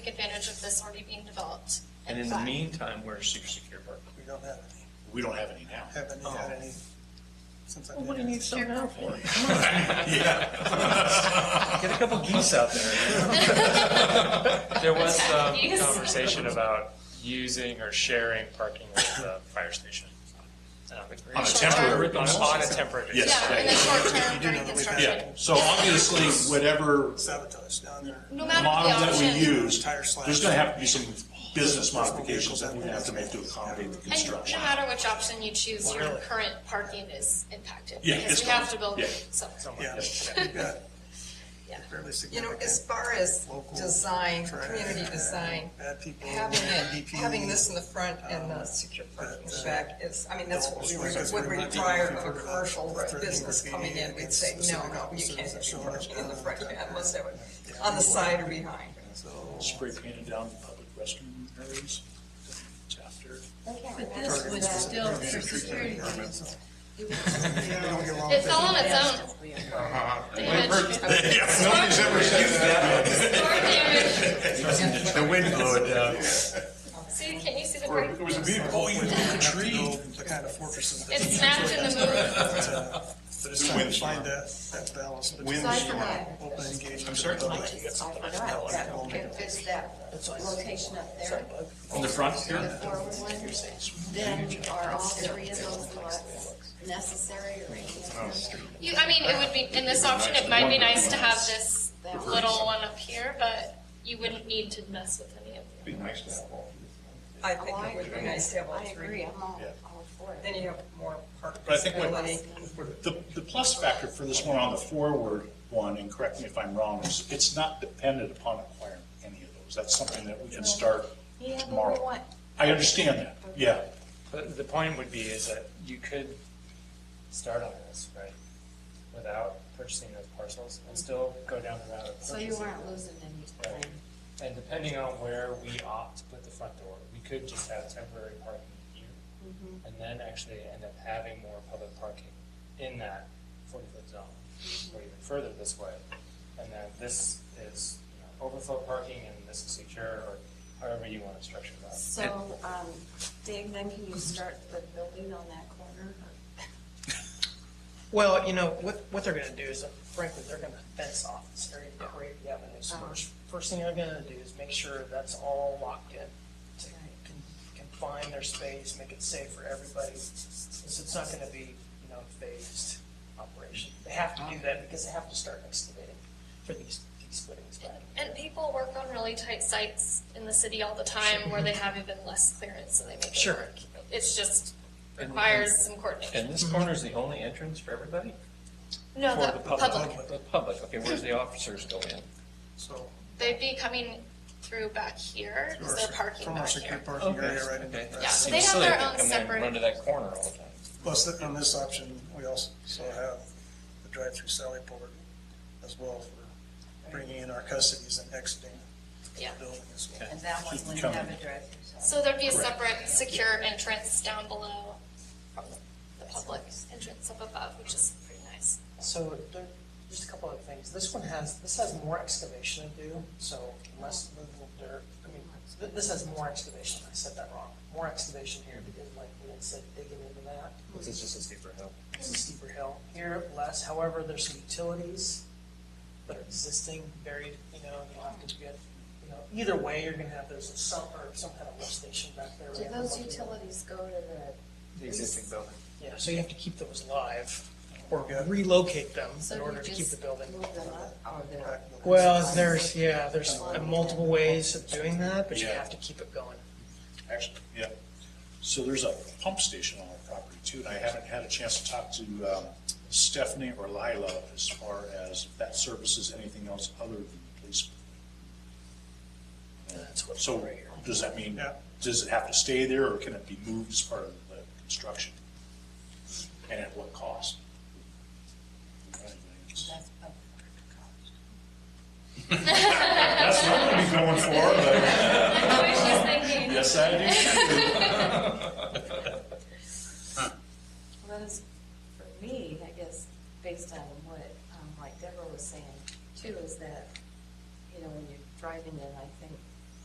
take advantage of this already being developed. And in the apply. meantime, where's your secure parking? We don't have any, We don't have any now. haven't had any since I've Well, what been do you here. need some now for? Get a couple geese out there. There was some Yes. conversation about using or sharing parking with the fire station. Um, On a temporary On a- on a temporary basis. Yes. Yeah, in the short term You do know during that we've construction. Yeah, so obviously, whatever Sabotage down there. No matter model the that we option. use, there's gonna have to be some business modifications that we have to make to accommodate the And construction. no matter which option you choose, your current parking is impacted. Yeah, Because it's we have gone. to build Yeah. somewhere. Yeah, we've got fairly You know, significant. as far as Local design, traffic, community design, bad people, having it, DP, having this in the front and the secure parking uh, back is, I mean, that's what we Because would we're not require even of a covered about commercial threatening business graffiti coming in. We'd against say, no, specific no, you officers can't that have show your up parking in the down front, there. unless they were on the side or behind. Spray painted down the public restroom areas, chapter. But this was still for security reasons. It was- We don't get along It with fell on its own. Uh-huh. Damage. Nobody's ever said that. Storm damage. The wind blew it down. See, can you see the break? It was a big, oh, you We took a have to tree. go The kind of fortresses that. It snapped in the move. But it's trying to find that, that balance between Aside from that, open engagement. I'm sorry? and public. It fits that location up there, On the front the here? forward one. Then are all three of those lots necessary or anything on the street? You, I mean, it would be, in this option, it might be nice to have this little one up here, but you wouldn't need to mess with any of them. I think it would be nice to have all I agree, three. I'm all, all for Then it. you have more parking. But I think what- ability. The, the plus factor for this one on the forward one, and correct me if I'm wrong, is it's not dependent upon acquiring any of those. That's something that we can start Yeah, but we tomorrow. want- I understand that, yeah. But the point would be is that you could start on this, right? Without purchasing those parcels and still go down the route of So you purchasing. weren't losing any time. And depending on where we opt to put the front door, we could just have temporary parking here. And then actually end up having more public parking in that forty-foot zone, or even further this way. And then this is you know, overflow parking and this is secure, or however you want to structure that. So, um, Dave, then can you start the building on that corner? Well, you know, what, what they're gonna do is, frankly, they're gonna fence off this area of Prairie Avenue. So Uh-huh. First, first thing they're gonna do is make sure that's all locked in. to Right. con- Confine their space, make it safe for everybody. It's, it's not gonna be, you know, phased operation. They have to do that because they have to start excavating for these, these footings back. And people work on really tight sites in the city all the time where they have even less clearance, so they make it Sure. work. It's just requires some coordination. And this corner's the only entrance for everybody? No, For the public, The public, okay, where's the officers go in? So, they'd be coming through back here, through because our they're sec- parking from our back secure here. parking Okay. area right into Okay. the. Yeah, so Seems they have silly their to own come in and separate- Run to that corner all the time. Plus, th- on this option, we also have the drive-through Sally Port as well for bringing in our custodies and exiting the Yeah. building as well. And that one wouldn't have a drive-through. so- So there'd be a separate secure entrance down below from the public entrance up above, which is pretty nice. So there, just a couple of things. This one has, this has more excavation to do, so less movable dirt. I mean, th- this has more excavation. I said that wrong. More excavation here because like we had said, digging into that. This is just a steeper hill. It's a steeper hill. Here, less, however, there's some utilities that are existing, buried, you know, and you'll have to get, you know, either way, you're gonna have, there's a some, or some kind of lift station back there. Do those utilities go to the? The existing building. Yeah, so you have to keep those live or Yeah. relocate them so in do order you to keep just the building. Move them up or they're? Well, there's, yeah, there's multiple ways of doing that, but you Yeah. have to keep it going. Actually, yeah. So there's a pump station on our property too, and I haven't had a chance to talk to um, Stephanie or Lila as far as if that services anything else other than the police. And that's what's So right here. does that mean, Yeah. does it have to stay there or can it be moved as part of the construction? And at what cost? That's up That's what I'm gonna be going for, but I was just thinking, yes, I do. Well, it's, for me, I guess, based on what, um, like Deborah was saying too, is that, you know, when you're driving in, I think